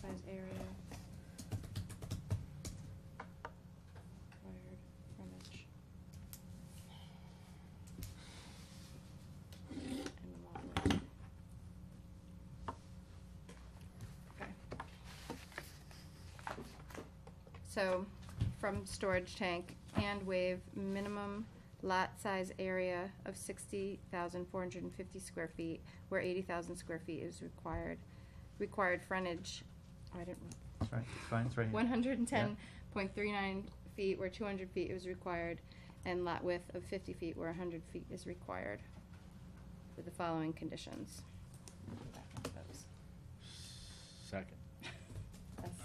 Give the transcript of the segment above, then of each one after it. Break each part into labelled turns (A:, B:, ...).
A: size area. Required frontage. And lot width.
B: Okay. So, from storage tank and waive minimum lot size area of sixty thousand four hundred and fifty square feet, where eighty thousand square feet is required. Required frontage, I didn't.
C: It's right, it's fine, it's right here.
B: One hundred and ten
C: Yeah.
B: point three nine feet where two hundred feet is required, and lot width of fifty feet where hundred feet is required. With the following conditions. Go back into those.
D: Second.
B: That's-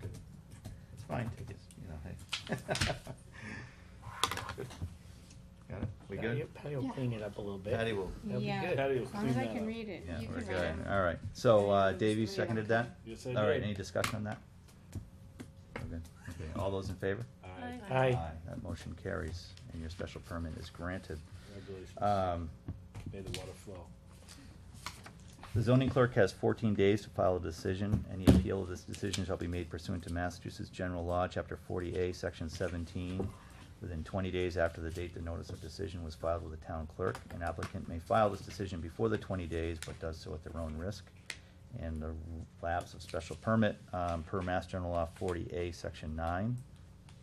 C: Good. It's fine, take it, you know, hey. Good. Got it, we
D: Patty-
C: good?
D: Patty will
B: Yeah.
D: clean it up a little bit.
C: Patty will-
D: That'll be
A: Yeah,
D: good. Patty will
A: as long
D: clean
A: as I
D: that
A: can
D: up.
A: read it,
C: Yeah,
A: you
C: we're
A: can read it.
C: good, all right, so, uh,
A: It's
C: Dave, you
A: three.
C: seconded that?
D: Yes, I
C: All right,
D: did.
C: any discussion on that? We're good, okay, all those in favor?
D: Aye.
A: Aye.
D: Aye.
C: That motion carries, and your special permit is granted.
D: Congratulations.
C: Um,
D: May the water flow.
C: The zoning clerk has fourteen days to file a decision. Any appeal of this decision shall be made pursuant to Massachusetts General Law, Chapter forty A, Section seventeen. Within twenty days after the date the notice of decision was filed with the town clerk, an applicant may file this decision before the twenty days, but does so at their own risk. And the lapse of special permit, um, per Mass General Law forty A, Section nine.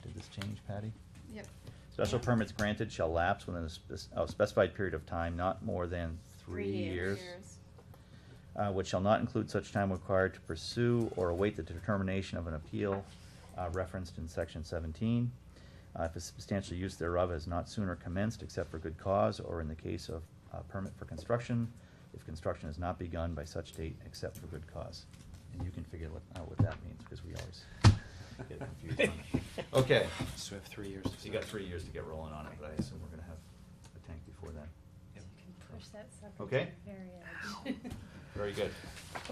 C: Did this change, Patty?
B: Yep.
C: Special permits granted shall lapse within a spec- a specified period of time, not more than three years uh, which shall not include such time required to pursue or await the determination of an appeal uh, referenced in section seventeen. Uh, If a substantial use thereof has not sooner commenced except for good cause or in the case of uh, permit for construction, if construction has not begun by such date except for good cause. And you can figure what- out what that means, because we always get confused on it. Okay.
E: So we have three years.
C: So you got three years to get rolling on it, but I assume we're gonna have a tank before then.
E: Yep.
F: Push that sucker.
C: Okay.
F: to the Very edge.
C: Very good.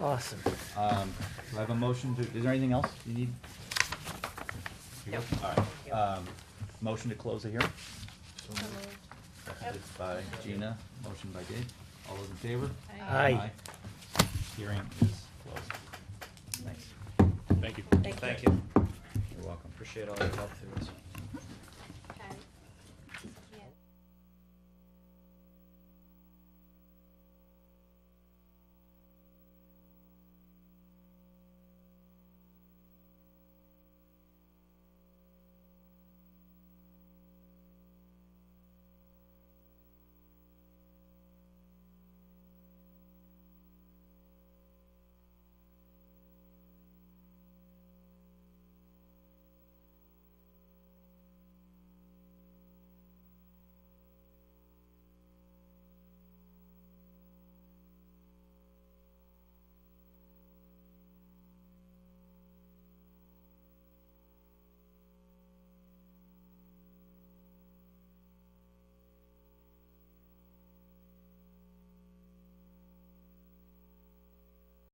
D: Awesome.
C: Um, do I have a motion to, is there anything else you need? You good? All right, um, motion to close the hearing?
F: So moved.
C: Seconded By Gina, motion by Dave, all those in favor?
D: Aye.
C: Hearing is closed. Thanks.
D: Thank you.
E: Thank you.
C: You're welcome.
E: Appreciate all your help through this.